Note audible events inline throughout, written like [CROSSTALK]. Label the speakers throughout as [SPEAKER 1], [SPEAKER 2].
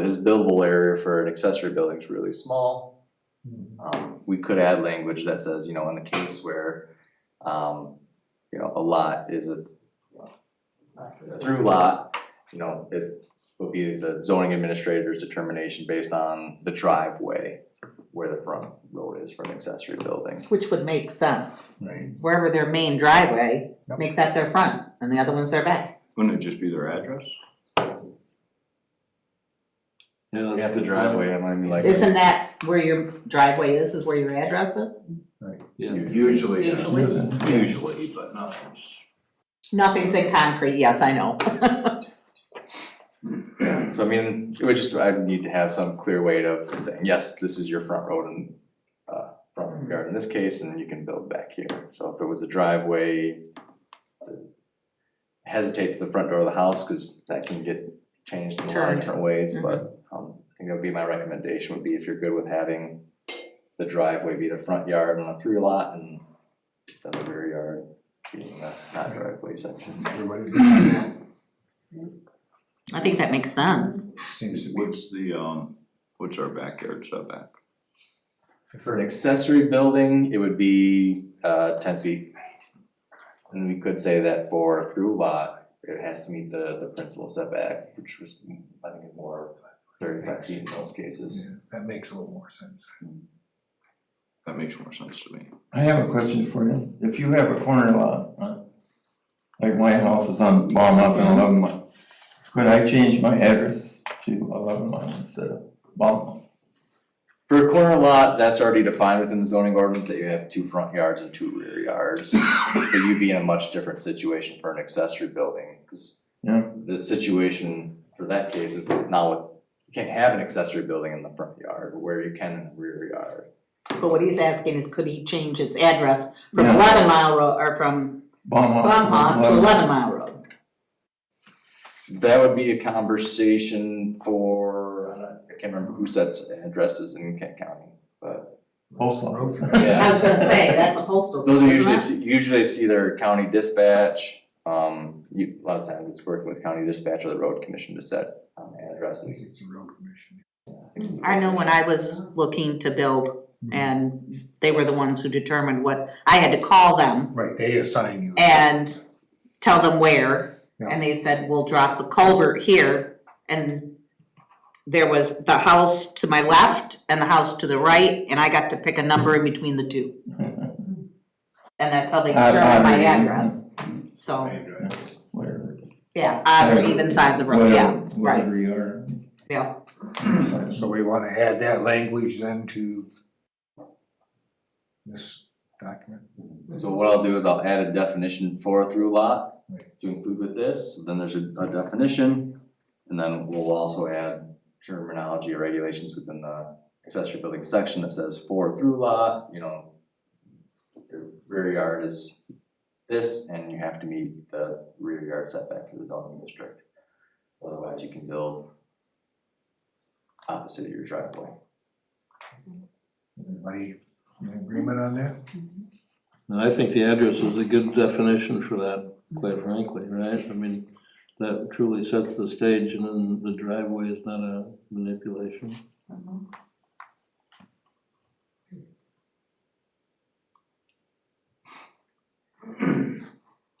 [SPEAKER 1] his billable area for an accessory building is really small. Um, we could add language that says, you know, in the case where, um, you know, a lot is a a through lot, you know, it would be the zoning administrator's determination based on the driveway where the front road is for an accessory building.
[SPEAKER 2] Which would make sense,
[SPEAKER 3] Right.
[SPEAKER 2] wherever their main driveway,
[SPEAKER 3] Yep.
[SPEAKER 2] make that their front, and the other one's their back.
[SPEAKER 4] Wouldn't it just be their address?
[SPEAKER 1] Yeah,
[SPEAKER 3] that's
[SPEAKER 1] The
[SPEAKER 3] good.
[SPEAKER 1] driveway, I mean, like.
[SPEAKER 2] Isn't that where your driveway is, is where your address is?
[SPEAKER 4] Usually, uh,
[SPEAKER 2] Usually.
[SPEAKER 4] usually, but not. always.
[SPEAKER 2] Nothing's in concrete, yes, I know.
[SPEAKER 1] Yeah, [CLEARS THROAT] so I mean, it would just, I need to have some clear way of saying, yes, this is your front road and, uh, front yard in this case, and you can build back here. So if it was a driveway, hesitate to the front door of the house, cause that can get changed in a lot of
[SPEAKER 2] Turned.
[SPEAKER 1] different ways, but, um, I think that would be my recommendation, would be if you're good with having the driveway be the front yard on a through lot and then the rear yard being the not driveway section.
[SPEAKER 3] Everybody does that.
[SPEAKER 2] I think that makes sense.
[SPEAKER 3] Seems to be
[SPEAKER 4] What's the, um, what's our backyard setback?
[SPEAKER 1] For an accessory building, it would be uh ten feet. And we could say that for a through lot, it has to meet the the principal setback, which was, I think, more thirty five feet in most cases.
[SPEAKER 3] Yeah, That makes a little more [LAUGHS] sense.
[SPEAKER 4] That makes more sense to me.
[SPEAKER 5] I have a question for you. If you have a corner lot, uh, like my house is on Balmont and eleven mile, could I change my address to eleven mile instead of Balmont?
[SPEAKER 1] For a corner lot, that's already defined within the zoning ordinance that you have two front yards and two rear yards. But you'd be in a much different situation for an accessory building, cause
[SPEAKER 5] Yeah.
[SPEAKER 1] the situation for that case is now, you can't have an accessory building in the front yard, but where you can in the rear yard.
[SPEAKER 2] But what he's asking is could he change his address from
[SPEAKER 5] Yeah. Oh,
[SPEAKER 2] eleven mile road, or from
[SPEAKER 5] Balmont to
[SPEAKER 2] Bonhoff to eleven mile road?
[SPEAKER 1] That would be a conversation for, I don't- I can't remember who sets addresses in Kent County, but
[SPEAKER 5] Post [LAUGHS] office.
[SPEAKER 2] I
[SPEAKER 1] yeah.
[SPEAKER 2] was gonna say, that's a postal,
[SPEAKER 1] Those are
[SPEAKER 2] isn't
[SPEAKER 1] usually,
[SPEAKER 2] it?
[SPEAKER 1] it's- usually it's either county dispatch, um, you, a lot of times it's working with county dispatch or the road commission to set um,
[SPEAKER 3] I think
[SPEAKER 1] addresses.
[SPEAKER 3] it's a real commission.
[SPEAKER 2] I know when I was looking to build and they were the ones who determined what, I had to call them
[SPEAKER 3] Right, they assign you.
[SPEAKER 2] and tell them where.
[SPEAKER 3] Yeah.
[SPEAKER 2] And they said, we'll drop the culvert here and there was the house to my left and the house to the right and I got to pick a number in between the two. And that's how they
[SPEAKER 5] Odd,
[SPEAKER 2] determined my
[SPEAKER 5] odd, even.
[SPEAKER 2] address, so,
[SPEAKER 5] Whatever.
[SPEAKER 2] yeah, odd or even side of the road, yeah,
[SPEAKER 5] Whatever-
[SPEAKER 2] right,
[SPEAKER 5] Whatever you are.
[SPEAKER 2] yeah.
[SPEAKER 3] So we wanna add that language then to this document.
[SPEAKER 1] So what I'll do is I'll add a definition for a through lot
[SPEAKER 3] Right.
[SPEAKER 1] to include with this, then there's a, a definition. And then we'll also add terminology or regulations within the accessory building section that says for a through lot, you know. Your rear yard is this and you have to meet the rear yard setback for the zoning district. Otherwise you can build opposite of your driveway.
[SPEAKER 3] Everybody in agreement on that?
[SPEAKER 6] And I think the address is a good definition for that, quite frankly, right? I mean, that truly sets the stage and then the driveway is not a manipulation.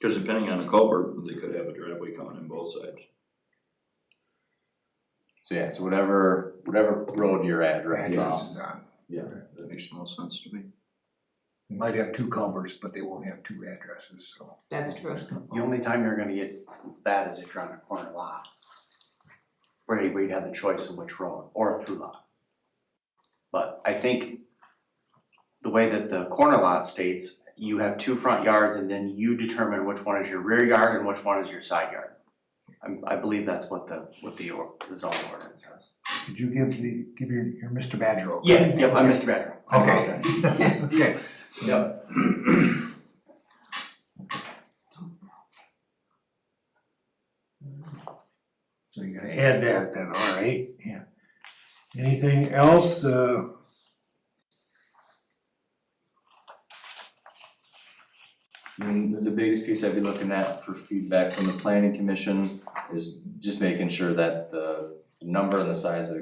[SPEAKER 4] Cause depending on the culvert, they could have a driveway coming in both sides.
[SPEAKER 1] So yeah, so whatever, whatever road you're at, right now.
[SPEAKER 3] Address is on.
[SPEAKER 4] Yeah. That makes the most sense to me.
[SPEAKER 3] They Might have two culverts, but they won't have two addresses, so.
[SPEAKER 2] That's true.
[SPEAKER 7] The only time you're gonna get that is if you're on a corner lot. Where you- where you'd have the choice of which road or a through lot. But I think the way that the corner lot states, you have two front yards and then you determine which one is your rear yard and which one is your side yard. I I believe that's what the what the or- the zoning ordinance says.
[SPEAKER 3] Did you give the, give your, your Mr. Badger over?
[SPEAKER 7] Yeah, yep, I'm Mr. Badger.
[SPEAKER 3] Okay. Okay,
[SPEAKER 4] Yep.
[SPEAKER 3] so you're gonna add that then, all right, yeah. Anything else, uh?
[SPEAKER 1] I mean, the- the biggest piece I'd be looking at for feedback from the planning commission is just making sure that the number and the size of the